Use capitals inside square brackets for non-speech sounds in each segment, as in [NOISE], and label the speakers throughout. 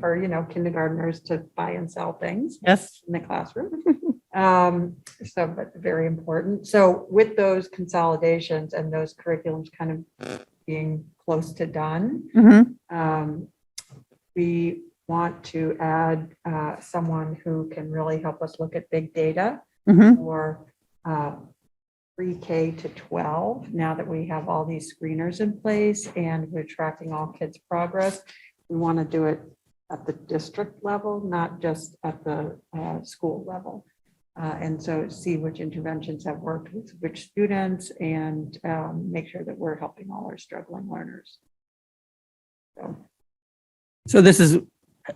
Speaker 1: for, you know, kindergarteners to buy and sell things
Speaker 2: Yes.
Speaker 1: in the classroom. Um, So, but very important. So with those consolidations and those curriculums kind of being close to done,
Speaker 2: Mhm.
Speaker 1: um, we want to add uh, someone who can really help us look at big data
Speaker 2: Mhm.
Speaker 1: for uh, pre-K to 12, now that we have all these screeners in place and we're tracking all kids' progress. We want to do it at the district level, not just at the uh, school level. Uh, And so see which interventions have worked with which students and um, make sure that we're helping all our struggling learners. So
Speaker 2: So this is,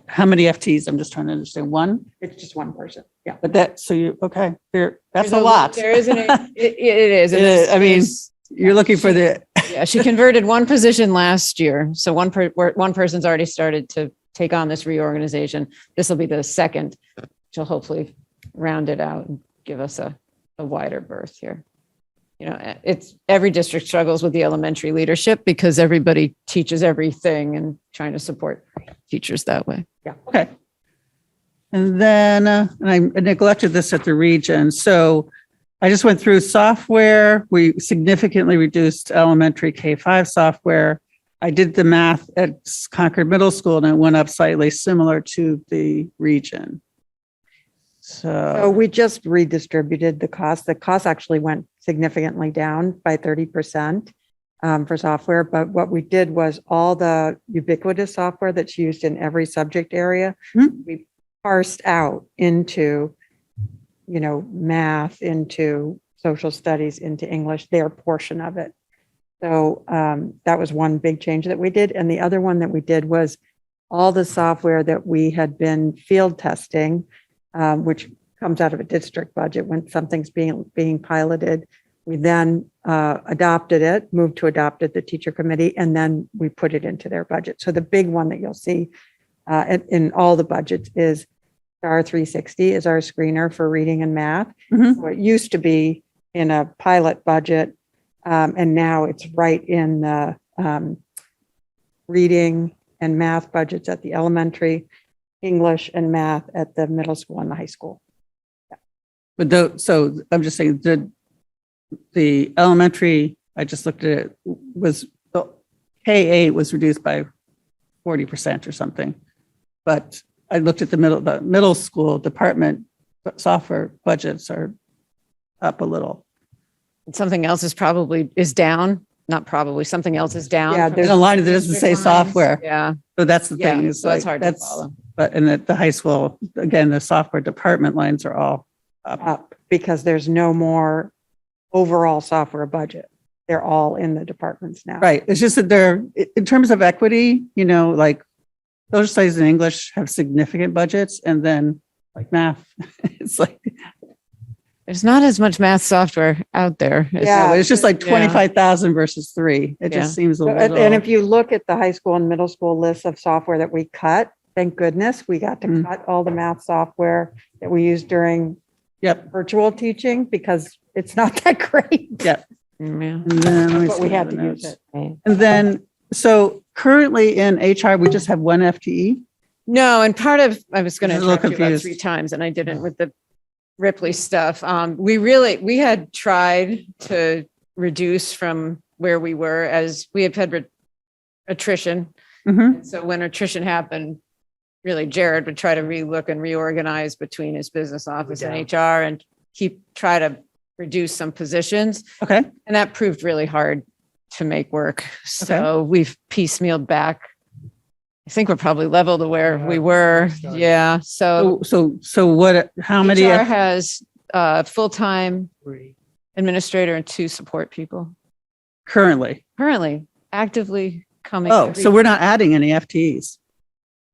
Speaker 2: how many FTs? I'm just trying to understand. One,
Speaker 1: it's just one person, yeah.
Speaker 2: but that, so you, okay, you're, that's a
Speaker 3: There's
Speaker 2: lot.
Speaker 3: There isn't, it, it it is. and
Speaker 2: [LAUGHS] It is,
Speaker 3: it's-
Speaker 2: I mean-
Speaker 3: it's-
Speaker 2: You're looking for the,
Speaker 3: Yeah, she converted one position last year. So one per, where- one person's already started to take on this reorganization. This will be the second. She'll hopefully round it out and give us a, a wider berth here. You know, eh, it's, every district struggles with the elementary leadership because everybody teaches everything and trying to support teachers that way.
Speaker 2: okay. And then, uh, and I neglected this at the region, so I just went through software. We significantly reduced elementary K-5 software. I did the math at Concord Middle School and it went up slightly similar to the region.
Speaker 1: So
Speaker 2: So,
Speaker 1: we just redistributed the cost. The cost actually went significantly down by thirty percent um, for software, but what we did was all the ubiquitous software that's used in every subject area,
Speaker 2: Hmm.
Speaker 1: we parsed out into, you know, math, into social studies, into English, their portion of it. So um, that was one big change that we did. And the other one that we did was all the software that we had been field testing, um, which comes out of a district budget when something's being, being piloted. We then uh, adopted it, moved to adopt it, the teacher committee, and then we put it into their budget. So the big one that you'll see uh, in, in all the budgets is STAR 360 is our screener for reading and math.
Speaker 2: Mhm.
Speaker 1: So It used to be in a pilot budget, um, and now it's right in the um, reading and math budgets at the elementary, English and math at the middle school and the high school.
Speaker 2: but though, so I'm just saying the, the elementary, I just looked at it, was, the K-8 was reduced by 40% or something. But I looked at the middle, the middle school department software budgets are up a little.
Speaker 3: Something else is probably, is down, not probably, something else is down.
Speaker 1: Yeah,
Speaker 3: from-
Speaker 2: There's a line that doesn't say software.
Speaker 3: Yeah,
Speaker 2: So that's the thing.
Speaker 3: yeah.
Speaker 2: is
Speaker 3: So that's
Speaker 2: like,
Speaker 3: hard to follow.
Speaker 2: But, and at the high school, again, the software department lines are all up.
Speaker 1: up because there's no more overall software budget. They're all in the departments now.
Speaker 2: Right. It's just that they're, i- in terms of equity, you know, like social studies and English have significant budgets and then like math, [LAUGHS] it's like,
Speaker 3: There's not as much math software out there. as-
Speaker 1: Yeah.
Speaker 2: it's just like
Speaker 3: Yeah.
Speaker 2: 25,000 versus three. It
Speaker 3: Yeah.
Speaker 2: just seems a
Speaker 1: So, And and
Speaker 2: little,
Speaker 1: if you look at the high school and middle school lists of software that we cut, thank goodness, we got to
Speaker 2: Mm.
Speaker 1: cut all the math software that we used during
Speaker 2: yep.
Speaker 1: virtual teaching because it's not [LAUGHS] that great.
Speaker 3: Mm, Yeah.
Speaker 2: And then, let me
Speaker 1: But
Speaker 2: see
Speaker 1: we
Speaker 2: the
Speaker 1: had to
Speaker 2: other
Speaker 1: use
Speaker 2: notes.
Speaker 1: it.
Speaker 2: And then, so currently in HR, we just have one E. FTE.
Speaker 3: No, and part of, I was going to
Speaker 2: This is a little
Speaker 3: interrupt you about
Speaker 2: confused.
Speaker 3: three times and I didn't with the Ripley stuff. Um, we really, we had tried to reduce from where we were as we had had re- attrition.
Speaker 1: Mm-hmm.
Speaker 2: Mhm.
Speaker 3: And So when attrition happened, really Jared would try to relook and reorganize between his business office and HR and keep, try to reduce some positions.
Speaker 2: Okay.
Speaker 3: And that proved really hard to make work. So we've piecemealed back. I think we're probably level to where we were. Yeah.
Speaker 1: Uh,
Speaker 3: So
Speaker 2: So, so, so what, how many?
Speaker 3: HR
Speaker 2: F- E
Speaker 3: has a full-time administrator and two support people
Speaker 2: Currently?
Speaker 3: currently actively coming.
Speaker 2: Oh,
Speaker 3: every-
Speaker 2: so we're not adding any FTEs.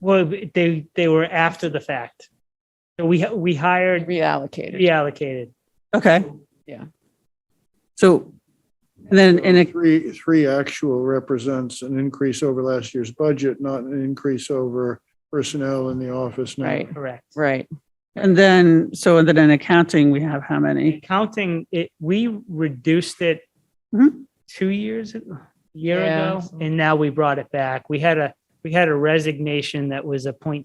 Speaker 4: Well, they, they were after the fact. So we, we hired
Speaker 3: Reallocated.
Speaker 4: reallocated.
Speaker 2: Okay.
Speaker 3: Yeah.
Speaker 2: So, and then, and it,
Speaker 5: Three, three actual represents an increase over last year's budget, not an increase over personnel in the office now.
Speaker 3: Right,
Speaker 4: Correct.
Speaker 3: right.
Speaker 2: And then, so then in accounting, we have how many?
Speaker 4: Accounting, it, we reduced it
Speaker 2: Mhm.
Speaker 4: two years, a- year
Speaker 3: Yeah.
Speaker 4: ago, and now we brought it back. We had a, we had a resignation that was a point